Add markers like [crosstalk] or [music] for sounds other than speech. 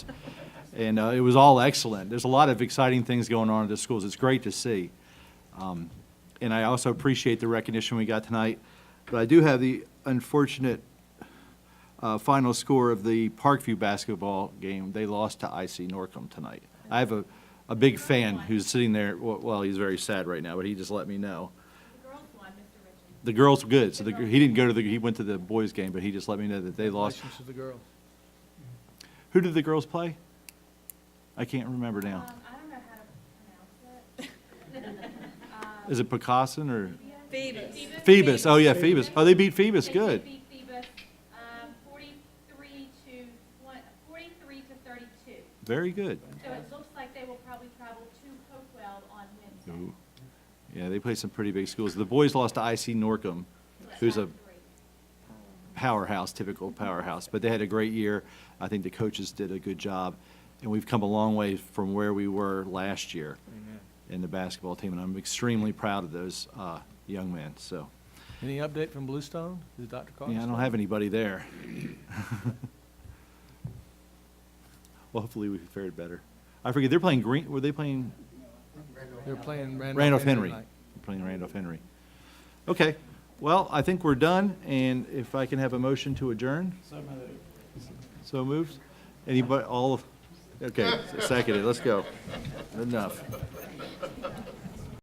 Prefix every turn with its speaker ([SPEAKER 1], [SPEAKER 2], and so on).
[SPEAKER 1] [laughs] And uh, it was all excellent. There's a lot of exciting things going on at the schools. It's great to see. Um, And I also appreciate the recognition we got tonight. But I do have the unfortunate uh, final score of the Parkview basketball game. They lost to IC Norcom tonight. I have a, a big fan who's sitting there, well- well, he's very sad right now, but he just let me know.
[SPEAKER 2] The girls won, Mr. Richards.
[SPEAKER 1] The girls, good, so the, he didn't go to the, he went to the boys' game, but he just let me know that they lost.
[SPEAKER 3] Congratulations to the girls.
[SPEAKER 1] Who did the girls play? I can't remember now.
[SPEAKER 2] Um, I don't know how to pronounce it.
[SPEAKER 1] Is it Picasso or?
[SPEAKER 4] Phoebus.
[SPEAKER 1] Phoebus, oh yeah, Phoebus. Oh, they beat Phoebus,
[SPEAKER 2] They
[SPEAKER 1] good.
[SPEAKER 2] beat Phoebus, um, 43 to, one- 43 to 32.
[SPEAKER 1] Very good.
[SPEAKER 2] So it looks like they will probably travel to Hopewell on Wednesday.
[SPEAKER 1] Ooh. Yeah, they play some pretty big schools. The boys lost to IC Norcom, who's a powerhouse, typical powerhouse, but they had a great year. I think the coaches did a good job, and we've come a long way from where we were last year in the basketball team, and I'm extremely proud of those uh, young men, so.
[SPEAKER 3] Any update from Bluestone? Is Dr. Carter?
[SPEAKER 1] Yeah, I
[SPEAKER 3] still-
[SPEAKER 1] don't have anybody there. [laughs] Well, hopefully we fared better. I forget, they're playing Green, were they playing
[SPEAKER 3] They're playing Randolph.
[SPEAKER 1] Randolph Henry?
[SPEAKER 3] tonight.
[SPEAKER 1] Playing Randolph Henry. Okay, well, I think we're done, and if I can have a motion to adjourn? So moved. So moved? Anybody, all of, okay, seconded, let's go. Enough.